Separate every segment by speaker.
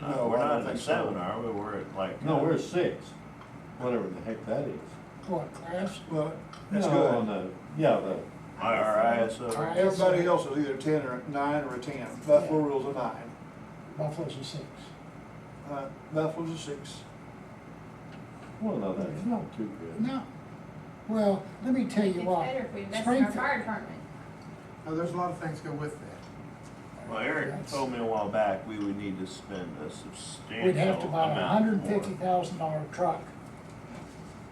Speaker 1: not
Speaker 2: think
Speaker 1: at
Speaker 2: so.
Speaker 1: seven, are we? We're at like.
Speaker 3: No, we're at six, whatever the heck that is.
Speaker 4: What, class?
Speaker 2: Well, that's
Speaker 3: No, On
Speaker 2: good.
Speaker 3: the, yeah, the,
Speaker 1: IRISO.
Speaker 2: Everybody else is either ten or nine or a ten. Buffalo rules a nine.
Speaker 4: Buffalo's a six.
Speaker 2: Uh, Buffalo's a six.
Speaker 3: well, no, that's not too good.
Speaker 4: No. Well, let me tell
Speaker 5: It's
Speaker 4: you what.
Speaker 5: better if we invest in our
Speaker 4: Springfield,
Speaker 5: fire department.
Speaker 6: Now, Oh, there's a lot of things go with that.
Speaker 1: Well, Eric
Speaker 4: That's-
Speaker 1: told me a while back, we would need to spend a substantial
Speaker 4: We'd have to buy a
Speaker 1: uh, amount
Speaker 4: hundred and
Speaker 1: more
Speaker 4: fifty thousand dollar truck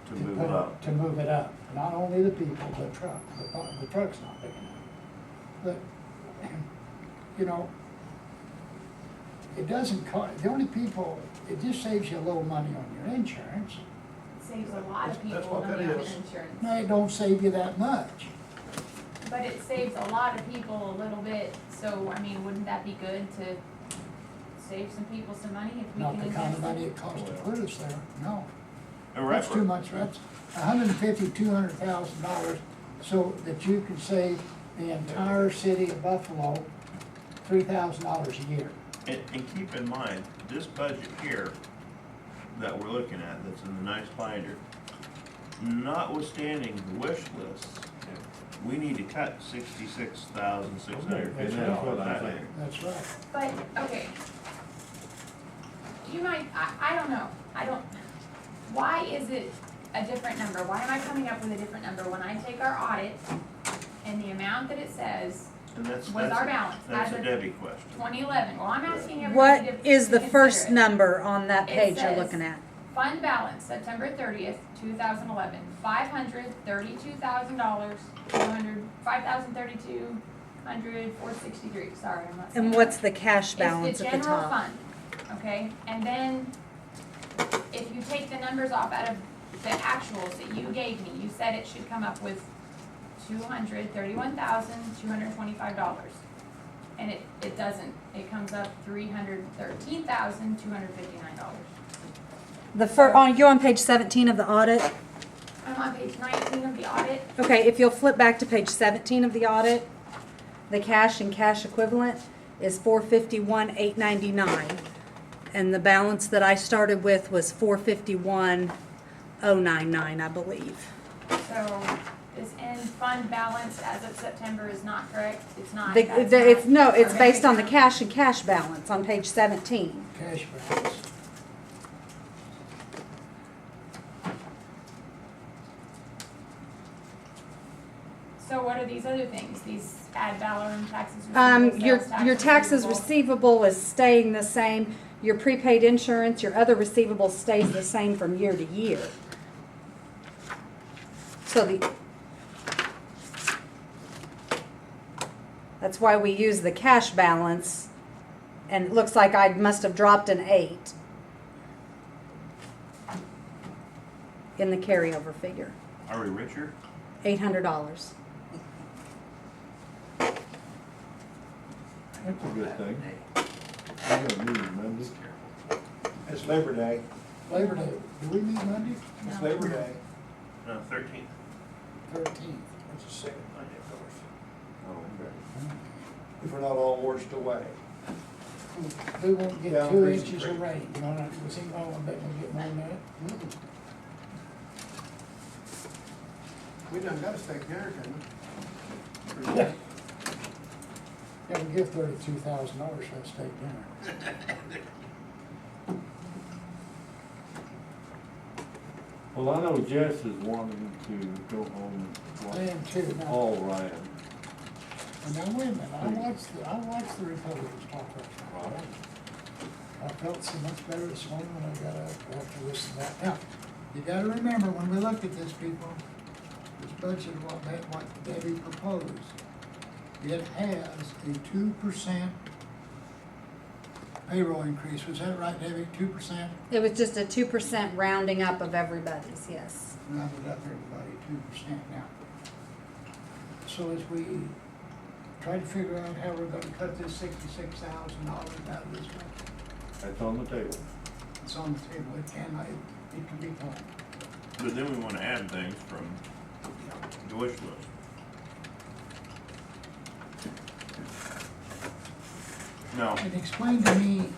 Speaker 1: To
Speaker 4: to
Speaker 1: move
Speaker 4: put
Speaker 1: it up.
Speaker 4: To move it up. Not only the people, the truck, the, bu- the truck's not big enough. But, you know, it doesn't cost, the only people, it just saves you a little money on your insurance.
Speaker 5: It Saves a lot of
Speaker 2: That's
Speaker 5: people
Speaker 2: what
Speaker 5: not
Speaker 2: that
Speaker 5: having
Speaker 2: is.
Speaker 4: No,
Speaker 5: insurance.
Speaker 4: it don't save you that much.
Speaker 5: But it saves a lot of people a little bit, so, I mean, wouldn't that be good to save some people some money if we
Speaker 4: Not
Speaker 5: can
Speaker 4: the kind
Speaker 5: invest?
Speaker 4: of money it costs to put us there, no.
Speaker 1: And
Speaker 4: That's
Speaker 1: right,
Speaker 4: too much, that's a hundred and fifty, two hundred thousand dollars, so that you can save the entire city of Buffalo three thousand dollars a year.
Speaker 1: And, and keep in mind, this budget here that we're looking at, that's in the nice binder, notwithstanding the wish lists, we need to cut sixty-six thousand, six hundred fifty
Speaker 3: And that's what
Speaker 1: dollars
Speaker 3: I
Speaker 1: out of
Speaker 3: think.
Speaker 1: there.
Speaker 4: That's right.
Speaker 5: But, okay. You might, I, I don't know, I don't, why is it a different number? Why am I coming up with a different number when I take our audit and the amount that it says,
Speaker 1: And that's,
Speaker 5: Was
Speaker 1: that's,
Speaker 5: our
Speaker 1: a-
Speaker 5: balance
Speaker 1: that's
Speaker 5: as
Speaker 1: a
Speaker 5: of
Speaker 1: Debbie question.
Speaker 5: twenty eleven? Well, I'm asking everybody to
Speaker 7: What is the
Speaker 5: to consider
Speaker 7: first
Speaker 5: it.
Speaker 7: number on that
Speaker 5: It
Speaker 7: page you're
Speaker 5: says-
Speaker 7: looking at?
Speaker 5: Fund balance, September thirtieth, two thousand eleven, five hundred thirty-two thousand dollars, two hundred, five thousand thirty-two hundred, four sixty-three, sorry, I'm not saying.
Speaker 7: And
Speaker 5: that.
Speaker 7: what's the cash
Speaker 5: It's
Speaker 7: balance at the
Speaker 5: general
Speaker 7: top?
Speaker 5: fund, okay, and then if you take the numbers off out of the actuals that you gave me, you said it should come up with two hundred thirty-one thousand, two hundred twenty-five dollars. And it, it doesn't, it comes up three hundred thirteen thousand, two hundred fifty-nine dollars.
Speaker 7: The fir, on, you're on page seventeen of the audit.
Speaker 5: I'm on page nineteen of the audit,
Speaker 7: Okay, if you'll flip back to page seventeen of the audit, the cash and cash equivalent is four fifty-one, eight ninety-nine. And the balance that I started with was four fifty-one, oh nine nine, I believe.
Speaker 5: so this end fund balance as of September is not correct, it's not.
Speaker 7: The,
Speaker 5: that's
Speaker 7: the, it's, no,
Speaker 5: not-
Speaker 7: it's
Speaker 5: okay.
Speaker 7: based on the cash and cash balance on page seventeen.
Speaker 4: Cash balance.
Speaker 5: So what are these other things, these ad valorem taxes receivable,
Speaker 7: Um, your,
Speaker 5: sales tax
Speaker 7: your taxes
Speaker 5: receivable?
Speaker 7: receivable is staying the same, your prepaid insurance, your other receivable stays the same from year to year. So the. That's why we use the cash balance, and it looks like I must have dropped an eight. In the carryover figure,
Speaker 1: Are we richer?
Speaker 7: eight hundred dollars.
Speaker 3: That's a good thing. I gotta move it, man. Just-
Speaker 2: It's Labor Day.
Speaker 4: Labor Day, do we meet Monday?
Speaker 2: It's Labor Day.
Speaker 1: No, thirteenth.
Speaker 4: Thirteenth.
Speaker 2: It's the second Monday, of course.
Speaker 1: Oh,
Speaker 2: If we're not all washed away.
Speaker 4: We won't
Speaker 2: Yeah,
Speaker 4: get two
Speaker 2: Reason
Speaker 4: inches
Speaker 2: Creek.
Speaker 4: of rain, you know, we see, oh, I bet we'll get more than that.
Speaker 6: We done got a state hurricane.
Speaker 4: Yeah, we give thirty-two thousand dollars for a steak dinner.
Speaker 3: Well, I know Jess is wanting to go home
Speaker 4: I
Speaker 3: and
Speaker 4: am too,
Speaker 3: watch
Speaker 4: now,
Speaker 3: Paul Ryan.
Speaker 4: and now wait a minute, I watched, the I watched the Republicans talk last night. I felt so much better this morning when I got up after listening to that. Now, you gotta remember, when we looked at this, people, this budget, what, that- what Debbie proposed, it has a two percent payroll increase. Was that right, Debbie? Two percent?
Speaker 7: It was just a two percent rounding up of everybody's, yes.
Speaker 4: rounded up everybody two percent now. So as we try to figure out how we're gonna cut this sixty-six thousand dollars out of this budget,
Speaker 3: That's on the table.
Speaker 4: it's on the table, it can, it, it can be done.
Speaker 1: But then we wanna add things from the wish list. No,
Speaker 4: And explain to me